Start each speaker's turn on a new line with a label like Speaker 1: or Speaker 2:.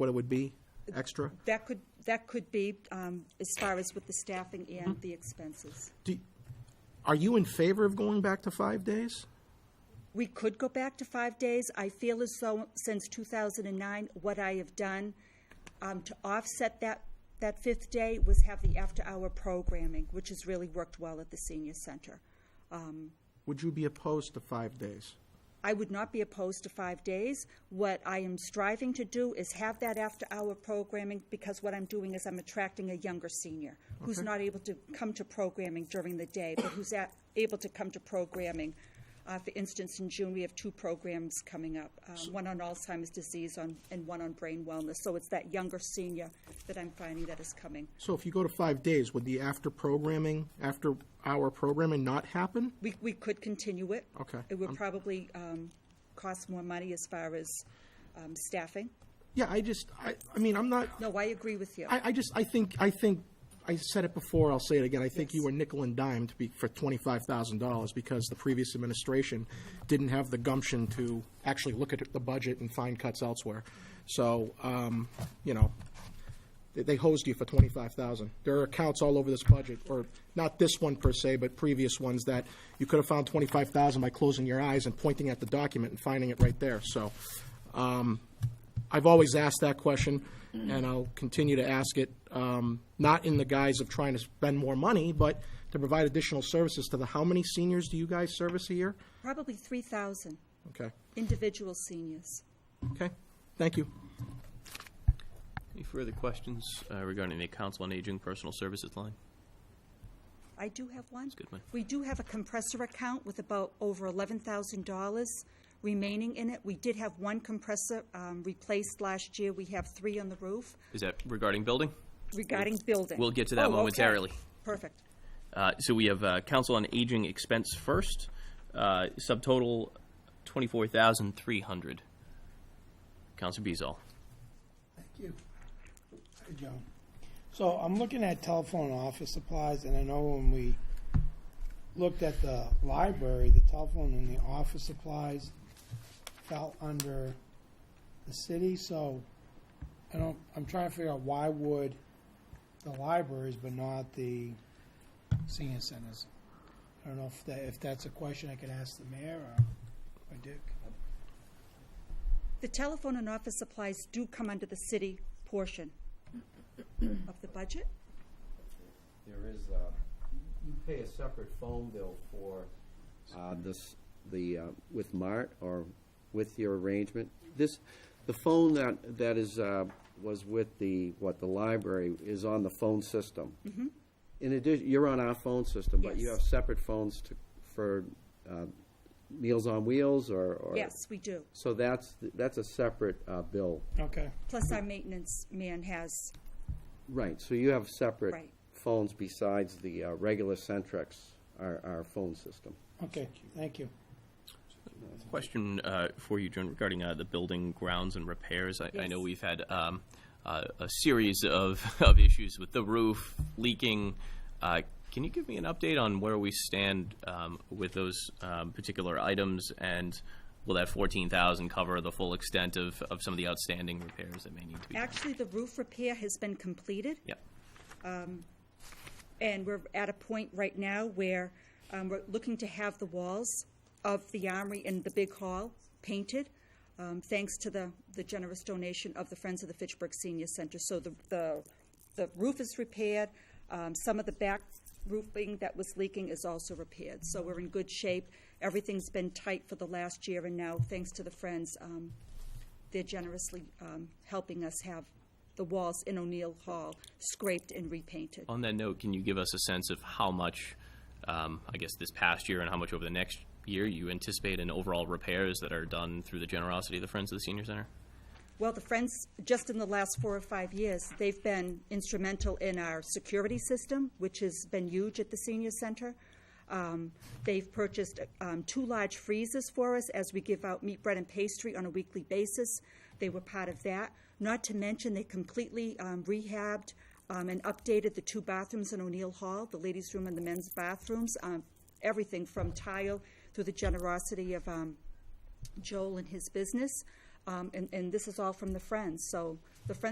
Speaker 1: what it would be, extra?
Speaker 2: That could, that could be um, as far as with the staffing and the expenses.
Speaker 1: Do, are you in favor of going back to five days?
Speaker 2: We could go back to five days. I feel as though, since 2009, what I have done um, to offset that, that fifth day was have the after-hour programming, which has really worked well at the senior center.
Speaker 1: Would you be opposed to five days?
Speaker 2: I would not be opposed to five days. What I am striving to do is have that after-hour programming, because what I'm doing is I'm attracting a younger senior who's not able to come to programming during the day, but who's at, able to come to programming. Uh, for instance, in June, we have two programs coming up, um, one on Alzheimer's disease on, and one on brain wellness. So it's that younger senior that I'm finding that is coming.
Speaker 1: So if you go to five days, would the after programming, after hour programming not happen?
Speaker 2: We, we could continue it.
Speaker 1: Okay.
Speaker 2: It would probably um, cost more money as far as um, staffing.
Speaker 1: Yeah, I just, I, I mean, I'm not,
Speaker 2: No, I agree with you.
Speaker 1: I, I just, I think, I think, I said it before, I'll say it again, I think you were nickel and dime to be, for twenty-five thousand dollars because the previous administration didn't have the gumption to actually look at the budget and find cuts elsewhere. So, um, you know, they, they hosed you for twenty-five thousand. There are accounts all over this budget, or not this one per se, but previous ones that you could have found twenty-five thousand by closing your eyes and pointing at the document and finding it right there, so. Um, I've always asked that question, and I'll continue to ask it, um, not in the guise of trying to spend more money, but to provide additional services to the, how many seniors do you guys service a year?
Speaker 2: Probably 3,000
Speaker 1: Okay,
Speaker 2: individual seniors.
Speaker 1: okay, thank you.
Speaker 3: Any further questions uh, regarding the Council on Aging Personal Services line?
Speaker 2: I do have one.
Speaker 3: good one.
Speaker 2: We do have a compressor account with about over $11,000 remaining in it. We did have one compressor um, replaced last year. We have three on the roof
Speaker 3: Is that regarding building?
Speaker 2: regarding building.
Speaker 3: we'll get to that
Speaker 2: Oh, okay.
Speaker 3: momentarily.
Speaker 2: Perfect.
Speaker 3: Uh, So we have uh, Council on Aging expense first, uh, subtotal 24,300. Council Bezal.
Speaker 4: Thank you. Hi, Joan. So I'm looking at telephone office supplies, and I know when we looked at the library, the telephone and the office supplies fell under the city, so I don't, I'm trying to figure out why would the libraries but not the senior centers? I don't know if that, if that's a question I could ask the mayor or or Dick.
Speaker 2: The telephone and office supplies do come under the city portion of the budget.
Speaker 5: There is, uh, you pay a separate phone bill for uh, this, the, uh, with Mart or with your arrangement. This, the phone that, that is, uh, was with the, what, the library is on the phone system. In addition, you're on our phone system, but you
Speaker 2: Mm-hmm. Yes.
Speaker 5: have separate phones to, for uh, Meals on Wheels or? or-
Speaker 2: Yes, we do.
Speaker 5: So that's, that's a separate uh, bill.
Speaker 4: Okay.
Speaker 2: Plus our maintenance man has,
Speaker 5: Right, so you have
Speaker 2: Right.
Speaker 5: separate phones besides the uh, regular Centrex, our, our phone system.
Speaker 4: Okay, thank you.
Speaker 3: Question uh, for you, Joan, regarding uh, the building grounds and repairs. I I know
Speaker 2: Yes.
Speaker 3: we've had um, uh, a series of of issues with the roof leaking. Uh, Can you give me an update on where we stand um, with those um, particular items? And will that 14,000 cover the full extent of of some of the outstanding repairs that may need to be done?
Speaker 2: actually, the roof repair has been completed.
Speaker 3: Yeah.
Speaker 2: And we're at a point right now where um, we're looking to have the walls of the Armory and the Big Hall painted, um, thanks to the, the generous donation of the Friends of the Fitchburg Senior Center. So the, the, the roof is repaired, um, some of the back roofing that was leaking is also repaired. So we're in good shape. Everything's been tight for the last year, and now, thanks to the Friends, um, they're generously um, helping us have the walls in O'Neill Hall scraped and repainted.
Speaker 3: On that note, can you give us a sense of how much, um, I guess, this past year and how much over the next year you anticipate in overall repairs that are done through the generosity of the Friends of the Senior Center?
Speaker 2: Well, the Friends, just in the last four or five years, they've been instrumental in our security system, which has been huge at the senior center. Um, They've purchased um, two large freezers for us as we give out meat, bread, and pastry on a weekly basis. They were part of that. Not to mention, they completely um, rehabbed um, and updated the two bathrooms in O'Neill Hall, the ladies' room and the men's bathrooms, um, everything from tile through the generosity of um, Joel and his business. Um, and, and this is all from the Friends, so the Friends